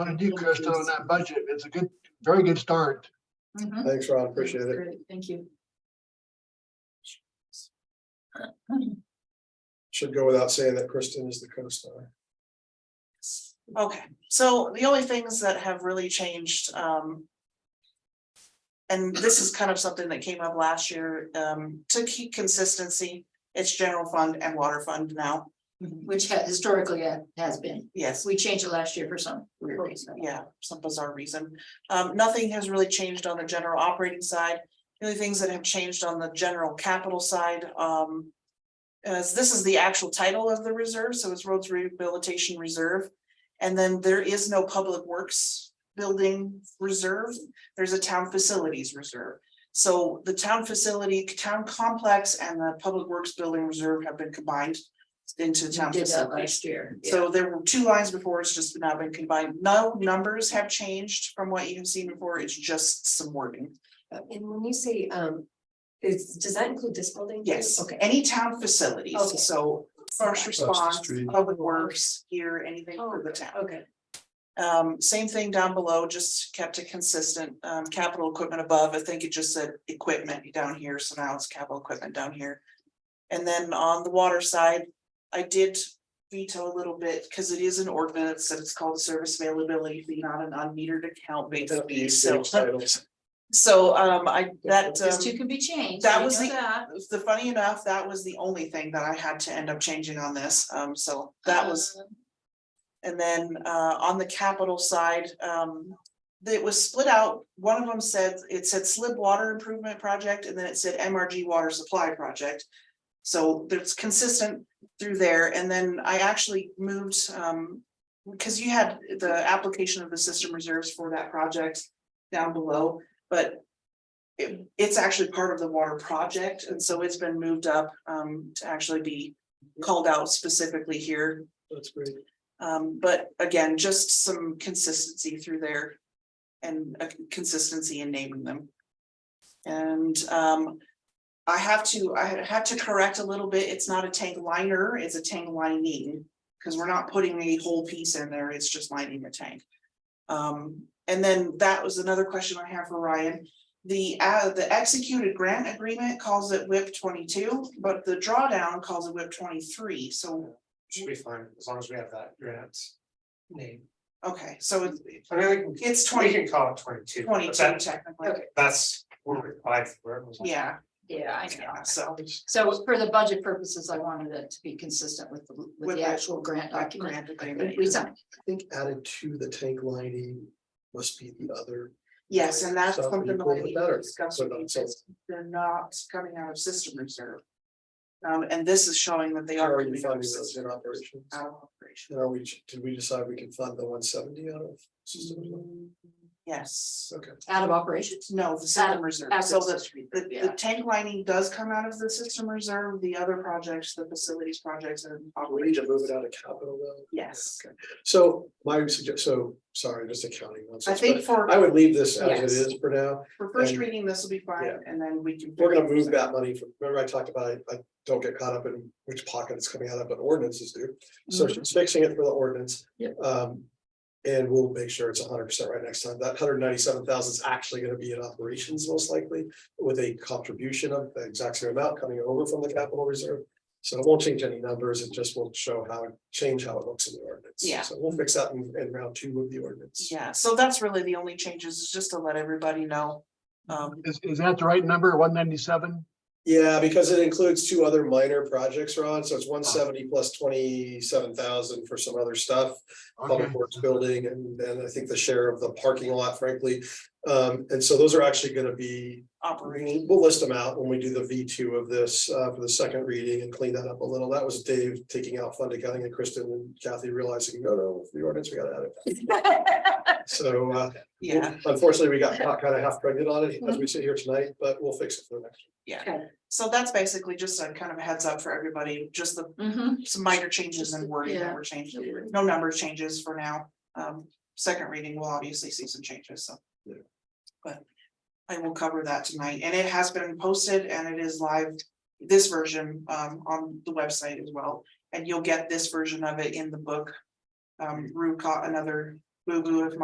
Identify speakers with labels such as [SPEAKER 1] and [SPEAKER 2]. [SPEAKER 1] Thank you, Krista, on that budget. It's a good, very good start.
[SPEAKER 2] Mhm.
[SPEAKER 3] Thanks, Ron. Appreciate it.
[SPEAKER 2] Great, Thank you.
[SPEAKER 3] Should go without saying that Kristen is the co-star.
[SPEAKER 4] Okay, so the only things that have really changed, um. And this is kind of something that came up last year, um, to keep consistency, it's general fund and water fund now,
[SPEAKER 5] Mm-hmm.
[SPEAKER 2] Which ha- historically ha- has been,
[SPEAKER 4] yes.
[SPEAKER 2] we changed it last year for some weird
[SPEAKER 4] for-
[SPEAKER 2] reason.
[SPEAKER 4] yeah, some bizarre reason. Um, nothing has really changed on the general operating side. The only things that have changed on the general capital side, um. As this is the actual title of the reserve, so it's roads rehabilitation reserve. And then there is no public works building reserve. There's a town facilities reserve. So the town facility, town complex and the public works building reserve have been combined into
[SPEAKER 2] We
[SPEAKER 4] town
[SPEAKER 2] Did that
[SPEAKER 4] facilities.
[SPEAKER 2] last year.
[SPEAKER 4] So there were two lines before, it's just now been combined. No numbers have changed from what you've seen before, it's just some wording.
[SPEAKER 5] uh, And when you say, um, is, does that include this building? too?
[SPEAKER 4] Yes,
[SPEAKER 5] Okay.
[SPEAKER 4] any town
[SPEAKER 5] Okay.
[SPEAKER 4] facilities, so first
[SPEAKER 3] the
[SPEAKER 4] response,
[SPEAKER 3] street.
[SPEAKER 4] public works, here, anything for the
[SPEAKER 5] okay,
[SPEAKER 4] town.
[SPEAKER 5] Oh, Okay,
[SPEAKER 4] Um, same thing down below, just kept it consistent, um, capital equipment above, I think it just said equipment down here, so now it's capital equipment down here. And then on the water side, I did veto a little bit, because it is an ordinance, and it's called service availability fee, not an unmetered account based fee, so.
[SPEAKER 3] Titles.
[SPEAKER 4] So, um, I, that,
[SPEAKER 2] These two
[SPEAKER 4] um,
[SPEAKER 2] can be changed.
[SPEAKER 4] that
[SPEAKER 2] we
[SPEAKER 4] was
[SPEAKER 2] know
[SPEAKER 4] the-
[SPEAKER 2] that.
[SPEAKER 4] the funny enough, that was the only thing that I had to end up changing on this, um, so that was.
[SPEAKER 2] Um,
[SPEAKER 4] And then uh on the capital side, um it was split out. One of them said, it said slip water improvement project and then it said MRG water supply project. So that's consistent through there. And then I actually moved um because you had the application of the system reserves for that project down below, but it it's actually part of the water project. And so it's been moved up um to actually be called out specifically here.
[SPEAKER 3] That's great.
[SPEAKER 4] Um, but again, just some consistency through there. And a consistency in naming them. And, um. I have to, I had to correct a little bit. It's not a tank liner, it's a tank lining. Cause we're not putting the whole piece in there, it's just lining the tank. Um, and then that was another question I have for Ryan. The, uh, the executed grant agreement calls it whip twenty-two, but the drawdown calls it whip twenty-three, so
[SPEAKER 6] should be fine, as long as we have that grant name.
[SPEAKER 4] Okay, so it's,
[SPEAKER 6] I mean, we can,
[SPEAKER 4] it's
[SPEAKER 6] we
[SPEAKER 4] twenty,
[SPEAKER 6] can call it twenty-two,
[SPEAKER 4] twenty
[SPEAKER 6] but
[SPEAKER 4] two
[SPEAKER 6] that,
[SPEAKER 4] technically,
[SPEAKER 6] that's where we applied for it. was like-
[SPEAKER 4] yeah,
[SPEAKER 2] Yeah, I know.
[SPEAKER 4] yeah, so.
[SPEAKER 2] So for the budget purposes, I wanted it to be consistent with, the with
[SPEAKER 4] With
[SPEAKER 2] the
[SPEAKER 4] the-
[SPEAKER 2] actual grant
[SPEAKER 4] that
[SPEAKER 2] document.
[SPEAKER 4] grant
[SPEAKER 3] I
[SPEAKER 4] agreement,
[SPEAKER 2] that We signed.
[SPEAKER 3] I think added to the tank lining must be the other.
[SPEAKER 4] Yes, and that's
[SPEAKER 3] Stuff and
[SPEAKER 4] something
[SPEAKER 3] you
[SPEAKER 4] that
[SPEAKER 3] pull it
[SPEAKER 4] we
[SPEAKER 3] better,
[SPEAKER 4] discussed,
[SPEAKER 3] so
[SPEAKER 4] with you,
[SPEAKER 3] that's all.
[SPEAKER 4] because they're not coming out of system reserve. Um, and this is showing that they
[SPEAKER 3] How
[SPEAKER 4] are.
[SPEAKER 3] Are you
[SPEAKER 4] coming out of
[SPEAKER 3] funding those
[SPEAKER 4] system
[SPEAKER 3] in operations?
[SPEAKER 4] out of operation.
[SPEAKER 3] And are we, did we decide we can fund the one seventy out of? system?
[SPEAKER 4] Yes,
[SPEAKER 3] Okay.
[SPEAKER 2] Out of operations.
[SPEAKER 4] no, the
[SPEAKER 2] Out
[SPEAKER 4] system
[SPEAKER 2] of-
[SPEAKER 4] reserve,
[SPEAKER 2] Out
[SPEAKER 4] so
[SPEAKER 2] of
[SPEAKER 4] the
[SPEAKER 2] system.
[SPEAKER 4] The, the
[SPEAKER 2] Yeah.
[SPEAKER 4] tank lining does come out of the system reserve, the other projects, the facilities projects and.
[SPEAKER 6] Oh,
[SPEAKER 3] We need to move it out of capital though.
[SPEAKER 4] Yes,
[SPEAKER 3] So my suggestion, so sorry, just accounting.
[SPEAKER 4] I
[SPEAKER 3] nonsense,
[SPEAKER 4] think for,
[SPEAKER 3] but I would leave this as
[SPEAKER 4] Yes.
[SPEAKER 3] it is for now.
[SPEAKER 4] for first
[SPEAKER 3] and-
[SPEAKER 4] reading, this will be fine,
[SPEAKER 3] Yeah.
[SPEAKER 4] and then we can.
[SPEAKER 3] We're gonna move that money from, remember I talked about, it, I don't get caught up in which pocket it's coming out of, but ordinances do. So she's fixing it for the ordinance.
[SPEAKER 2] Yep.
[SPEAKER 3] Um, and we'll make sure it's hundred percent right next time. That hundred ninety-seven thousand is actually gonna be in operations most likely. With a contribution of the exact same amount coming over from the capital reserve. So it won't change any numbers. It just will show how, change how it looks in the ordinance.
[SPEAKER 4] Yeah.
[SPEAKER 3] So we'll fix that in, in round two of the ordinance.
[SPEAKER 4] Yeah, so that's really the only changes, is just to let everybody know. Um,
[SPEAKER 1] Is, is that the right number, one ninety-seven?
[SPEAKER 3] Yeah, because it includes two other minor projects, Ron, so it's one seventy plus twenty-seven thousand for some other stuff. Public Works Building, and then I think the share of the parking lot, frankly. Um, and so those are actually gonna be,
[SPEAKER 4] operating,
[SPEAKER 3] we'll list them out when we do the V two of this, uh, for the second reading and clean that up a little. That was Dave taking out fund accounting and Kristen and Kathy realizing, no, no, the ordinance, we gotta add it. So, uh,
[SPEAKER 4] yeah,
[SPEAKER 3] unfortunately, we got kind of half pregnant on it as we sit here tonight, but we'll fix it for the next.
[SPEAKER 4] so that's basically just a kind of a heads up for everybody, just the,
[SPEAKER 2] Mhm.
[SPEAKER 4] some minor changes and wording that were changed. No number changes for now, um, second reading will obviously see some changes, so.
[SPEAKER 3] Yeah.
[SPEAKER 4] But I will cover that tonight, and it has been posted and it is live, this version, um, on the website as well. And you'll get this version of it in the book, um, Rue caught another, Whip boo-boo if